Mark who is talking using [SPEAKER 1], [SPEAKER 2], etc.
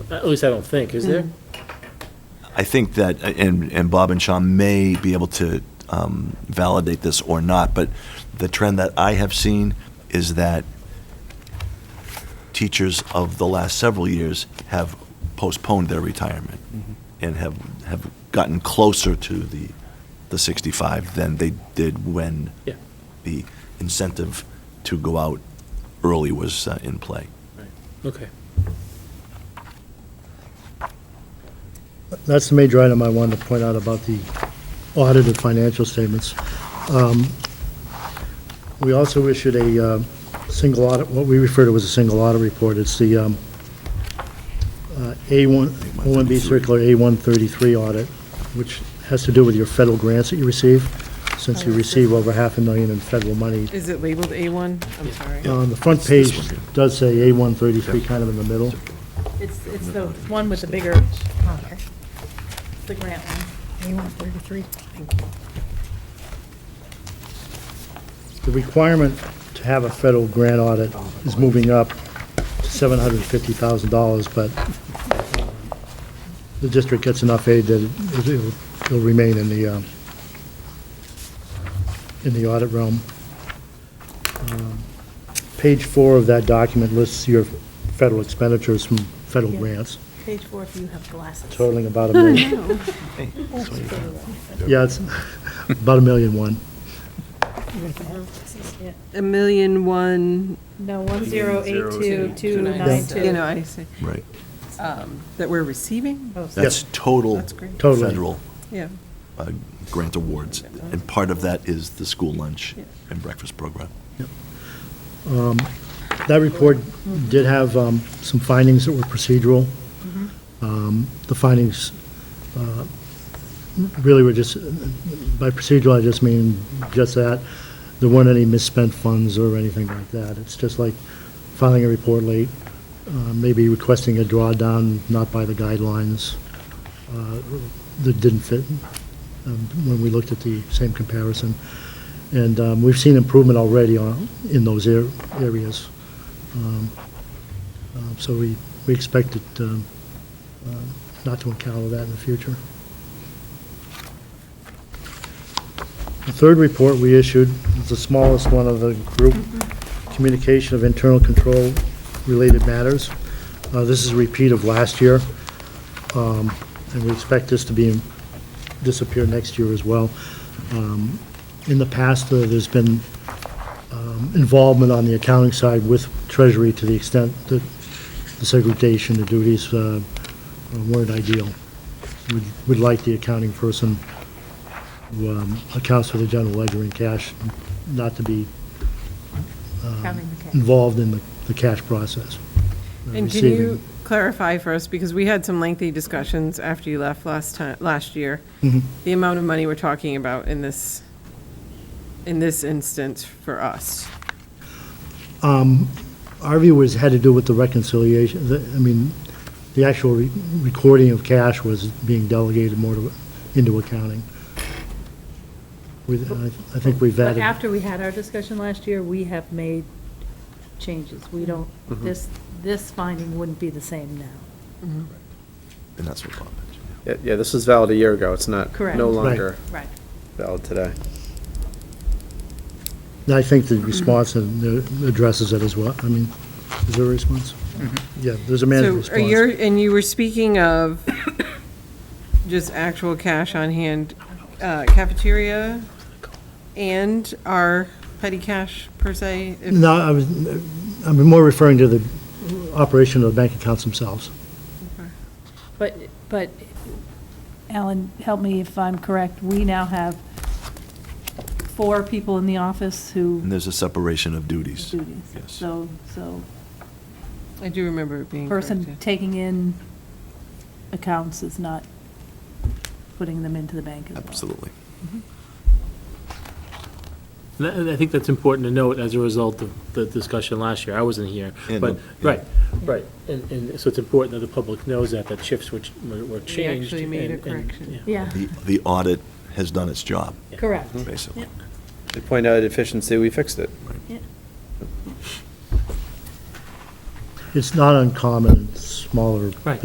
[SPEAKER 1] At least I don't think, is there?
[SPEAKER 2] Mm-hmm. I think that, and, and Bob and Sean may be able to um, validate this or not, but the trend that I have seen is that teachers of the last several years have postponed their retirement
[SPEAKER 3] Mm-hmm.
[SPEAKER 2] and have, have gotten closer to the, the 65 than they did when
[SPEAKER 1] Yeah.
[SPEAKER 2] the incentive to go out early was uh, in play.
[SPEAKER 1] Okay.
[SPEAKER 4] That's the major item I wanted to point out about the audited financial statements. Um, We also issued a uh, single audit, what we refer to as a single audit report. It's the um, uh, A1, O1B Circular A133 audit, which has to do with your federal grants that you receive, since you receive over half a million in federal money.
[SPEAKER 3] Is it labeled A1? I'm sorry.
[SPEAKER 4] On the front page does say A133 kind of in the middle.
[SPEAKER 5] It's, it's the one with the bigger, the grant one.
[SPEAKER 6] A133.
[SPEAKER 4] The requirement to have a federal grant audit is moving up to $750,000, but uh, the district gets enough aid that it- it'll it'll remain in the, um, in the audit realm. Um, Page four of that document lists your federal expenditures from federal
[SPEAKER 5] Yeah.
[SPEAKER 4] grants
[SPEAKER 5] Page four, if you have glasses.
[SPEAKER 4] totaling about a million. Yeah, it's about a million one.
[SPEAKER 3] A million one,
[SPEAKER 5] No, one zero eight two, two nine two.
[SPEAKER 3] you know, I see,
[SPEAKER 2] Right.
[SPEAKER 3] that we're receiving?
[SPEAKER 2] That's total
[SPEAKER 3] That's great.
[SPEAKER 4] Totally.
[SPEAKER 2] federal
[SPEAKER 3] Yeah.
[SPEAKER 2] uh, grant awards, and part of that is the school lunch and breakfast program.
[SPEAKER 4] That report did have um, some findings that were procedural. Um, The findings uh, really were just, by procedural, I just mean just that. There weren't any misspent funds or anything like that. It's just like filing a report late, uh, maybe requesting a drawdown not by the guidelines uh, that didn't fit um, when we looked at the same comparison. And um, we've seen improvement already on- in those ar- areas. Um, um, So we, we expect it um, um, not to encounter that in the future. The third report we issued is the smallest one of the group, Communication of Internal Control Related Matters. Uh, This is a repeat of last year, um, and we expect this to be, disappear next year as well. Um, In the past, uh, there's been um, involvement on the accounting side with Treasury to the extent that the segregation of duties uh, weren't ideal. We'd- We'd like the accounting person who um, accounts for the general ledger and cash not to be
[SPEAKER 5] Counting the
[SPEAKER 3] um,
[SPEAKER 5] cash.
[SPEAKER 4] involved in the the cash process. uh,
[SPEAKER 3] And can
[SPEAKER 4] receiving-
[SPEAKER 3] you clarify for us, because we had some lengthy discussions after you left last time, last year, the amount of money we're talking about in this, in this instance for us?
[SPEAKER 4] Our view was, had to do with the reconciliation, the- I mean, the actual re- recording of cash was being delegated more to- into accounting. We- I I think we've
[SPEAKER 5] But
[SPEAKER 4] added.
[SPEAKER 5] after we had our discussion last year, we have made changes. We don't, this, this finding wouldn't be the same now.
[SPEAKER 2] And that's what Bob mentioned.
[SPEAKER 7] Yeah, yeah, this was valid a year ago. It's not,
[SPEAKER 5] Correct.
[SPEAKER 7] no
[SPEAKER 5] Right.
[SPEAKER 7] longer
[SPEAKER 5] Right.
[SPEAKER 7] valid today.
[SPEAKER 4] And I think the response and the- addresses it as well. I mean, is there a response? Yeah, there's a management
[SPEAKER 3] So are
[SPEAKER 4] response.
[SPEAKER 3] you, and you were speaking of just actual cash on hand uh, cafeteria and our petty cash per se? if-
[SPEAKER 4] No, I was, I'm more referring to the operation of the bank accounts themselves.
[SPEAKER 5] But, but Alan, help me if I'm correct, we now have four people in the office who
[SPEAKER 2] And there's a separation of duties.
[SPEAKER 5] duties.
[SPEAKER 2] Yes.
[SPEAKER 5] So, so
[SPEAKER 3] I do remember it being
[SPEAKER 5] person
[SPEAKER 3] corrected.
[SPEAKER 5] taking in accounts is not putting them into the bank as well.
[SPEAKER 2] Absolutely.
[SPEAKER 1] And I- and I think that's important to note as a result of the discussion last year. I wasn't here.
[SPEAKER 2] Yeah,
[SPEAKER 1] But,
[SPEAKER 2] no, yeah.
[SPEAKER 1] right, right. And, and so it's important that the public knows that, that shifts which were were changed.
[SPEAKER 3] We actually made a
[SPEAKER 1] and- and-
[SPEAKER 3] correction.
[SPEAKER 1] yeah.
[SPEAKER 5] Yeah,
[SPEAKER 2] The, the audit has done its job,
[SPEAKER 5] correct.
[SPEAKER 2] basically.
[SPEAKER 7] They point out a deficiency, we fixed it.
[SPEAKER 4] It's not uncommon, in smaller
[SPEAKER 1] Right.